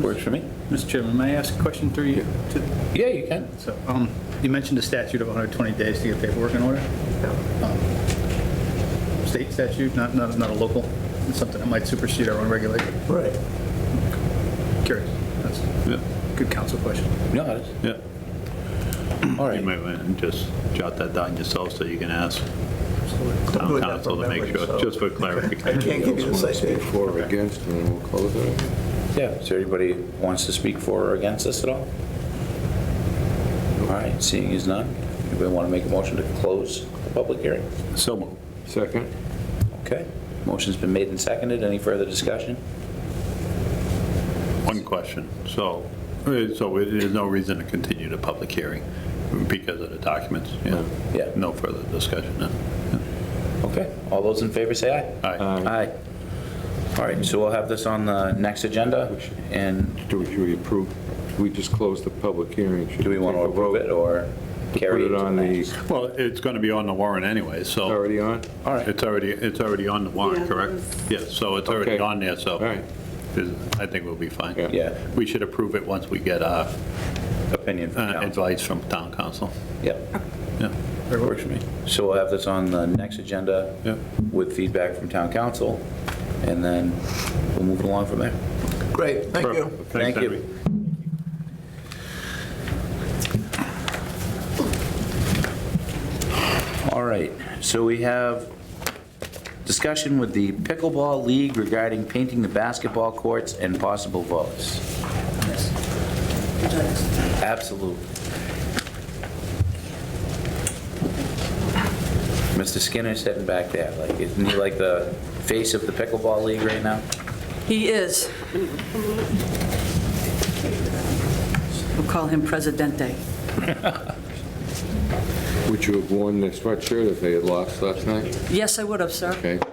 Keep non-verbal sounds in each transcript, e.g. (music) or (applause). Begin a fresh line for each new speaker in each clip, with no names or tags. Works for me.
Mr. Chairman, may I ask a question through you? to-
Yeah, you can.
So, um, you mentioned a statute of 120 days to get paperwork in order. Um, State statute, not, not, not a local, It's something that might supersede our own regulation.
Right.
Curious. That's
Yeah,
a good council question.
No, it's-
yeah.
all
You
right.
might want to just jot that down yourself so you can ask
Don't do
town
it that
council to
from
make
memory,
sure,
so- (laughs)
just for
I
clarification.
can't give you the
Speak
citation.
for or against, and then we'll close it.
Yeah, is there anybody who wants to speak for or against this at all? All right, seeing as none, anybody want to make a motion to close the public hearing?
So moved.
Second?
Okay, motion's been made and seconded, any further discussion?
One question. So, uh, so it- there's no reason to continue the public hearing because of the documents? Yeah.
Yeah.
No further discussion then?
Okay, all those in favor say aye.
All right.
Aye. All right, so we'll have this on the next agenda, and
Do we, should we approve, we just closed the public hearing. Should
do we want to
take a
approve it or
vote to
carry it to the
Put it
next?
on
Well, it's going to be on the warrant anyway,
the,
so.
already on?
All right,
It's already, it's already on the
Yeah,
warrant,
it
correct?
was-
Yes, so it's already
Okay.
on there, so
All right.
is- I think we'll be fine.
Yeah.
yeah,
We should approve it once we get uh,
opinion
uh,
from council.
advice from town council.
Yep,
Yeah.
that works for me. So we'll have this on the next agenda
Yep.
with feedback from town council, and then we'll move along from there.
Great, thank you.
Perfect.
Thank
Henry.
you. All right, so we have discussion with the pickleball league regarding painting the basketball courts and possible votes. Absolutely. Mr. Skinner's sitting back there, like, isn't he like the face of the pickleball league right now?
He is. We'll call him Presidente.
Would you have worn the sweatshirt if they had lost last night?
Yes, I would have, sir. (laughs)
Okay. But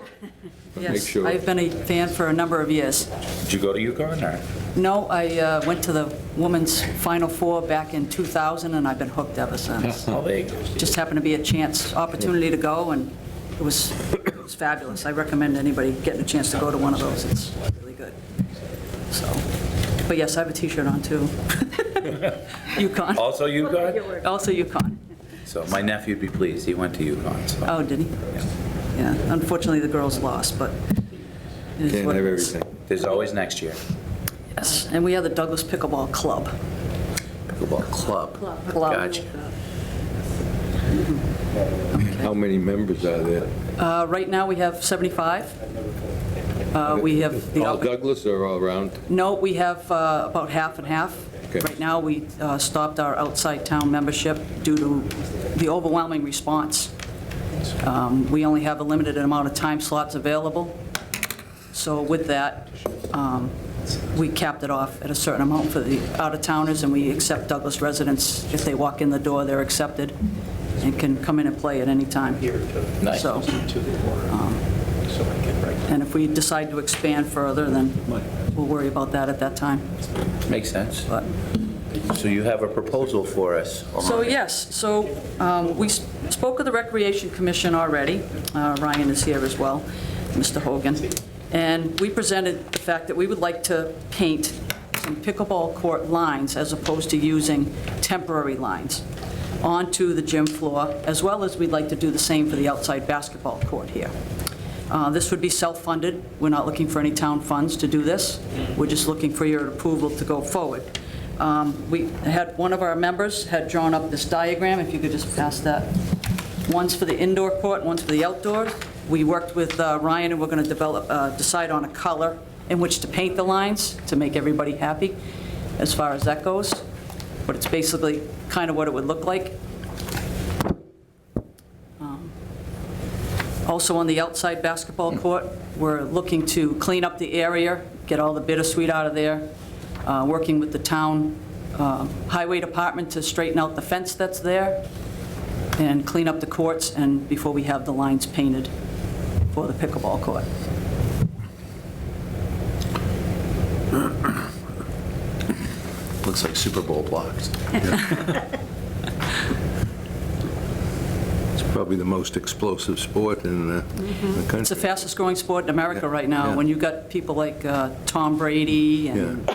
Make
Yes,
sure.
I've been a fan for a number of years.
Did you go to UConn or?
No, I uh, went to the women's Final Four back in 2000, and I've been hooked ever since.
Oh, there you go.
Just happened to be a chance, opportunity to go, and it was it was fabulous. I recommend anybody getting a chance to go to one of those. It's really good. So, but yes, I have a T-shirt on, too. (laughs) UConn.
Also UConn?
Also UConn.
So my nephew'd be pleased, he went to UConn, so.
Oh, did he? Yeah, unfortunately, the girls lost, but it is
Can't
what
have
it is.
everything.
There's always next year,
Yes, and we have the Douglas Pickleball Club.
pickleball club.
Club.
Gotcha.
How many members are there?
Uh, Right now, we have 75. Uh, We have, the
All Douglas or all around?
no, we have uh, about half and half.
Okay.
Right now, we uh, stopped our outside town membership due to the overwhelming response. Um, We only have a limited amount of time slots available, so with that, um, we capped it off at a certain amount for the out-of-towners, and we accept Douglas residents. If they walk in the door, they're accepted and can come in and play at any time.
Nice.
So, um, And if we decide to expand further, then we'll worry about that at that time.
Makes sense.
But,
So you have a proposal for us?
so yes, so um, we s- spoke with the Recreation Commission already. Uh, Ryan is here as well, Mr. Hogan. And we presented the fact that we would like to paint some pickleball court lines as opposed to using temporary lines onto the gym floor, as well as we'd like to do the same for the outside basketball court here. Uh, This would be self-funded. We're not looking for any town funds to do this. We're just looking for your approval to go forward. Um, We had, one of our members had drawn up this diagram, if you could just pass that. One's for the indoor court, one's for the outdoor. We worked with uh, Ryan, and we're going to develop, uh, decide on a color in which to paint the lines to make everybody happy, as far as that goes. But it's basically kind of what it would look like. Also on the outside basketball court, we're looking to clean up the area, get all the bittersweet out of there, uh, working with the town uh, highway department to straighten out the fence that's there and clean up the courts and before we have the lines painted for the pickleball court.
Looks like Super Bowl blocks.
It's probably the most explosive sport in the the country.
It's the fastest growing sport in America right now. When you've got people like uh, Tom Brady and
Yeah.